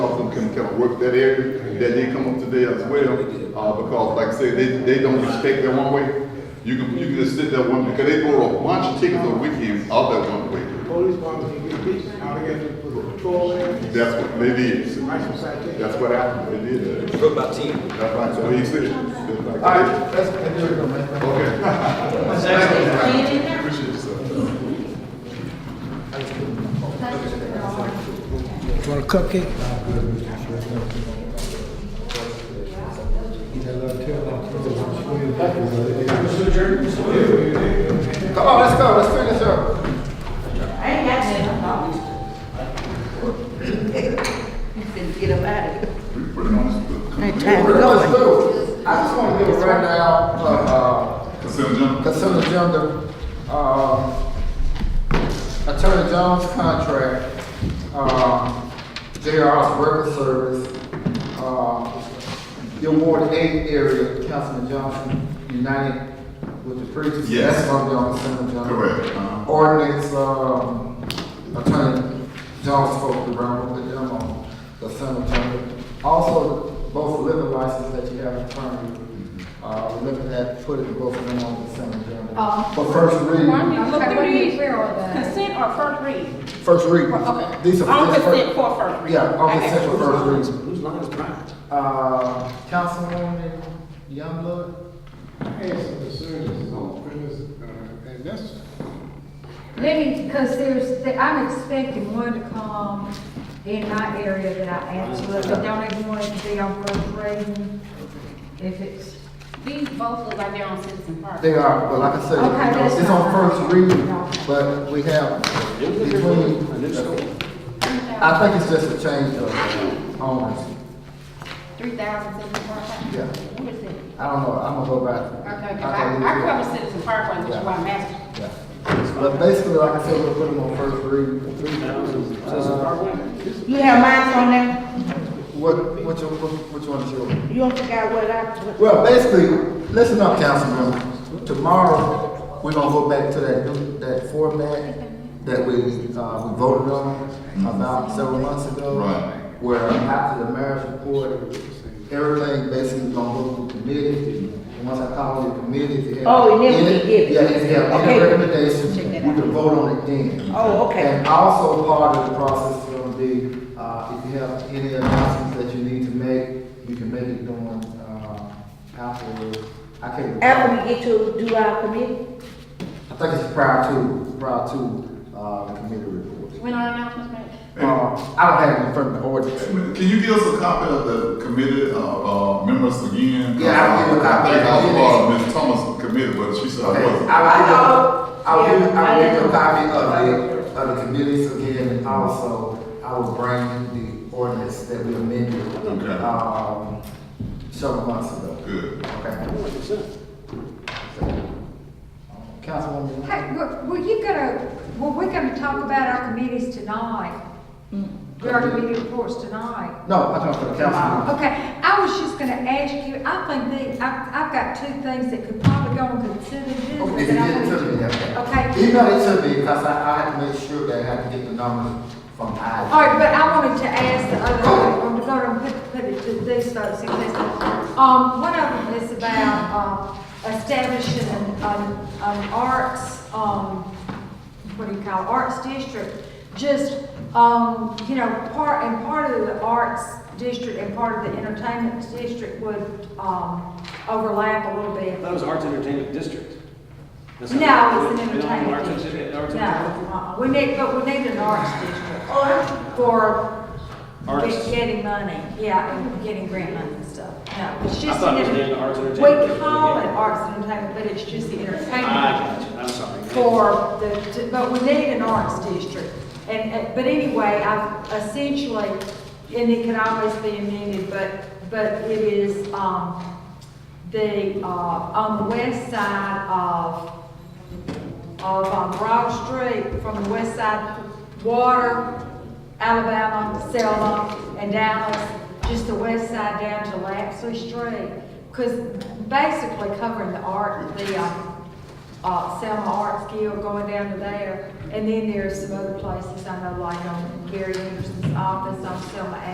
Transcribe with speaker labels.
Speaker 1: can kind of work that area, that did come up today as well. Uh, because like I said, they, they don't respect that one way. You can, you can just sit there one, because they throw a bunch of tickets on weekends out that one way.
Speaker 2: Police department can get beat, now they got to put a patrol in,
Speaker 1: That's what they did.
Speaker 2: nice and citation.
Speaker 1: That's what happened, they did that.
Speaker 3: What about team?
Speaker 1: That's like, so he said. All
Speaker 2: that's, that's your comment.
Speaker 1: Okay. Appreciate it, sir.
Speaker 4: Want a cupcake?
Speaker 2: Come on, let's go, let's finish up.
Speaker 5: I ain't got nothing, I'm not used to it. Get up out of here.
Speaker 1: We put it on this,
Speaker 5: Ain't
Speaker 2: Yeah,
Speaker 5: time to
Speaker 2: we're
Speaker 5: go.
Speaker 2: gonna do- I just want to give a rundown of uh,
Speaker 1: consent agenda.
Speaker 2: consent agenda. Um, Attorney Jones' contract, um, JR's record service, um, your Ward Eight area, Councilman Johnson, united with the previous.
Speaker 1: Yes.
Speaker 2: That's gonna be on consent agenda.
Speaker 1: Correct, uh-huh.
Speaker 2: Ordinance, um, Attorney Jones spoke around with them on the consent agenda. Also, both liquor license that you have in front of you, uh, we're looking at putting both of them on the consent agenda.
Speaker 6: Oh.
Speaker 2: For first reading.
Speaker 6: Look
Speaker 7: Okay,
Speaker 6: through
Speaker 7: wait a
Speaker 6: these.
Speaker 7: minute, where are they?
Speaker 6: Consent or first read?
Speaker 2: First reading.
Speaker 6: Oh, Okay.
Speaker 2: These are.
Speaker 6: On
Speaker 2: these are
Speaker 6: consent
Speaker 2: first-
Speaker 6: for first read.
Speaker 2: Yeah, on consent for first
Speaker 3: Whose
Speaker 2: reading.
Speaker 3: line is mine?
Speaker 2: Uh, Councilwoman Youngblood?
Speaker 8: I have some concerns on premise, uh, and that's,
Speaker 7: Let me, because there's, I'm expecting one to come in my area that I asked, but I don't even want it to be on first reading. If it's,
Speaker 6: These both look like they're on Citizen Park.
Speaker 2: They are, but like I said,
Speaker 7: Okay,
Speaker 2: you know,
Speaker 7: that's
Speaker 2: it's on
Speaker 7: fine.
Speaker 2: first reading,
Speaker 7: Okay.
Speaker 2: but we have between, I think it's just a change of uh, owners.
Speaker 6: Three thousand Citizen Park.
Speaker 2: Yeah.
Speaker 6: What is it?
Speaker 2: I don't know, I'm gonna go back.
Speaker 6: Okay, 'cause
Speaker 2: thought we
Speaker 6: I, I
Speaker 2: did.
Speaker 6: cover Citizen Park one, which is why I'm asking.
Speaker 2: Yeah. But basically, like I said, we'll put them on first reading.
Speaker 5: You have mine on there?
Speaker 2: What, what you, what what you want to do?
Speaker 5: You don't forget what I, what
Speaker 2: Well, basically, listen up, councilman. Tomorrow, we're gonna go back to that, new- that format that we, uh, we voted on about several months ago.
Speaker 1: Right.
Speaker 2: Where after the mayor's report, everything basically gonna go to committee. And Once I call the committee, if you have.
Speaker 5: Oh, and then we
Speaker 2: any-
Speaker 5: give it.
Speaker 2: Yeah, if you have any
Speaker 5: Okay.
Speaker 2: recommendations,
Speaker 5: Check
Speaker 2: we
Speaker 5: that
Speaker 2: can vote on it then.
Speaker 5: Oh, okay.
Speaker 2: And also part of the process is gonna be, uh, if you have any announcements that you need to make, you can make it during, uh, afterwards. I can't.
Speaker 5: after we get to do our committee?
Speaker 2: I think it's prior to, prior to, uh, the committee report.
Speaker 6: When our announcements made?
Speaker 2: Uh, I don't have it in front of the ordinance.
Speaker 1: Can you give us a copy of the committee, uh, uh, members again?
Speaker 2: Yeah, I'll give you a copy.
Speaker 1: I think I was part of Ms. Thomas' committee, but she said I
Speaker 2: Okay,
Speaker 1: wasn't.
Speaker 2: I will, give- I will, give- I will
Speaker 5: Yeah, I
Speaker 2: give a
Speaker 5: know.
Speaker 2: copy of the, of the committees again, and also I will bring the ordinance that we amended,
Speaker 1: Okay.
Speaker 2: um, several months ago.
Speaker 1: Good.
Speaker 2: Okay. Councilwoman.
Speaker 7: hey, were were you gonna, were we gonna talk about our committees tonight? Hmm. Our committee reports tonight?
Speaker 2: No, I'm talking for the councilwoman.
Speaker 7: Okay, I was just gonna ask you, I think that, I, I've got two things that could probably go and consider
Speaker 2: Oh,
Speaker 7: this.
Speaker 2: If you get it to me, okay.
Speaker 7: Okay.
Speaker 2: Email it to me, because I, I had to make sure that I had to get the numbers from I.
Speaker 7: All right, but I wanted to ask the other, um, I'm gonna put, put it to these folks in case. Um, one of them is about, um, establishing an, an, an arts, um, what do you call, it, arts district. Just, um, you know, part, and part of the arts district and part of the entertainment district would, um, overlap a little bit.
Speaker 3: That was Arts Entertainment District. That's not-
Speaker 7: No, it's an
Speaker 3: We don't have arts
Speaker 7: entertainment
Speaker 3: and-
Speaker 7: district.
Speaker 3: arts
Speaker 7: No,
Speaker 3: and-
Speaker 7: uh-uh. we need, but we need an arts district for
Speaker 3: Arts.
Speaker 7: getting money, yeah, and getting grant money and stuff. No, it's
Speaker 3: I
Speaker 7: just.
Speaker 3: thought it was
Speaker 7: an-
Speaker 3: named Arts and
Speaker 7: We
Speaker 3: Entertainment. Ah,
Speaker 7: call it arts and entertainment, but it's just the
Speaker 3: I
Speaker 7: entertainment
Speaker 3: got you, I'm sorry.
Speaker 7: for the, to- but we need an arts district. And, and- but anyway, I essentially, and it can always be amended, but, but it is, um, the, uh, on the west side of, of um, Broad Street from the west side, Water, Alabama, Selma, and Dallas, just the west side down to Lapsley Street. Because basically covering the art, the um, uh, Selma Arts Guild going down to there. And then there's some other places I know, like on Gary Anderson's um, office on Selma